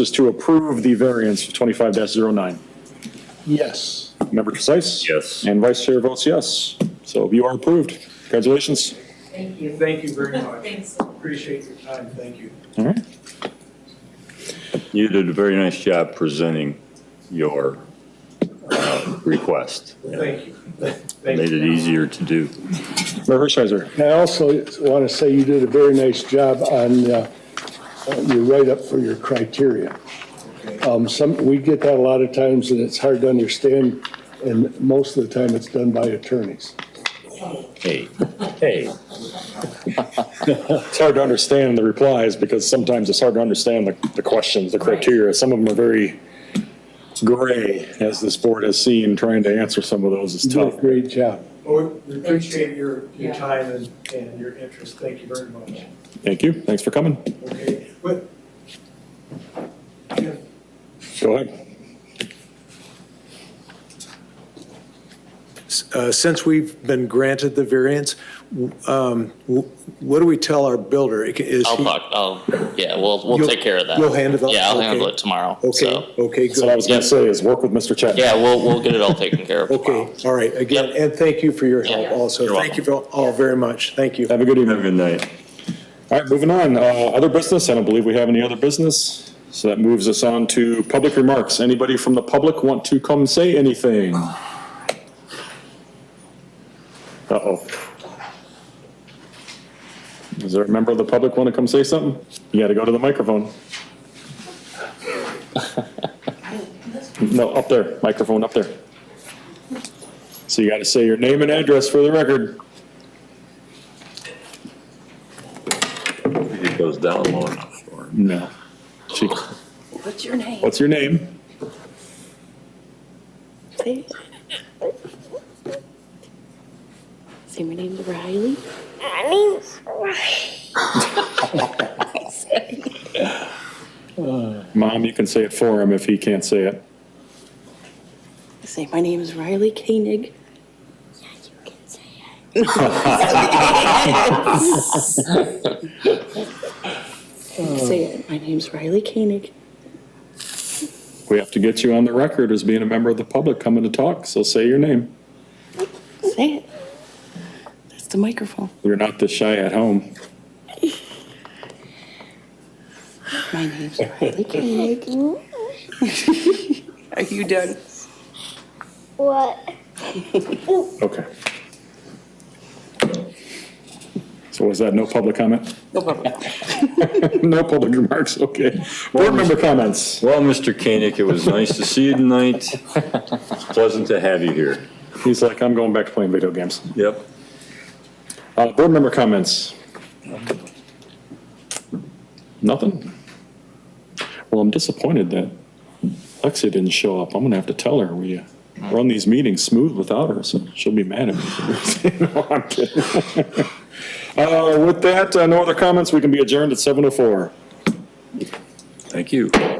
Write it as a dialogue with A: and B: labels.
A: is to approve the variance of 25-09.
B: Yes.
A: Member Precise?
C: Yes.
A: And Vice Chair votes yes. So you are approved. Congratulations.
D: Thank you.
B: Thank you very much.
D: Thanks.
B: Appreciate your time. Thank you.
A: All right.
C: You did a very nice job presenting your uh, request.
B: Thank you. Thank
C: Made
B: you.
C: it easier to do.
A: Mayor Hershiser?
E: I also want to say you did a very nice job on uh, your write-up for your criteria. Um, Some, we get that a lot of times, and it's hard to understand, and most of the time, it's done by attorneys.
C: Hey, hey.
A: It's hard to understand the replies because sometimes it's hard to understand the, the questions, the criteria. Some of them are very gray, as this board has seen, trying to answer some of those is
E: You did
A: tough.
E: a great job.
B: Well, We appreciate your,
D: Yeah.
B: your time and, and your interest. Thank you very much.
A: Thank you. Thanks for coming.
B: Okay, but. Yeah.
A: Go ahead.
F: Uh, Since we've been granted the variance, w- um, w- what do we tell our builder? I- Is
G: I'll
F: he-
G: talk, I'll, yeah, we'll, we'll
F: You'll-
G: take care of that.
F: you'll handle that?
G: Yeah, I'll
F: Okay.
G: handle it tomorrow,
F: Okay,
G: so,
F: okay,
A: So what I
F: good.
A: was going to say is work with Mr. Chapman.
G: yeah, we'll, we'll get it all taken care of tomorrow.
F: Okay, all right, again,
G: Yep.
F: and thank you for your help
G: Yeah.
F: also.
G: You're
F: Thank you for all very much, thank you.
A: Have a good
C: Have a
A: evening.
C: good night.
A: All right, moving on. Uh, Other business, I don't believe we have any other business. So that moves us on to public remarks. Anybody from the public want to come say anything? Uh-oh. Is there a member of the public want to come say something? You got to go to the microphone. No, up there, microphone up there. So you got to say your name and address for the record.
C: It goes down low enough for him.
A: No. She-
H: What's your name?
A: What's your name?
H: Say it. Say my name's Riley. My name's Riley.
A: Mom, you can say it for him if he can't say it.
H: Say my name is Riley Koenig. Yeah, you can say it. Say it. My name's Riley Koenig.
A: We have to get you on the record as being a member of the public coming to talk, so say your name.
H: Say it. That's the microphone.
A: You're not this shy at home.
H: My name's Riley Koenig. Are you done?
I: What?
A: Okay. So was that no public comment?
H: No problem.
A: No public remarks, okay. Board member comments.
C: Well, Mr. Koenig, it was nice to see you tonight. It's Pleasant to have you here.
A: He's like, I'm going back to playing video games.
C: Yep.
A: Uh, board member comments. Nothing? Well, I'm disappointed that Lexi didn't show up. I'm gonna have to tell her we uh, run these meetings smooth without her, so she'll be mad at me. No, I'm kidding. oh Uh, with that, uh, no other comments, we can be adjourned at 7:04.
C: Thank you.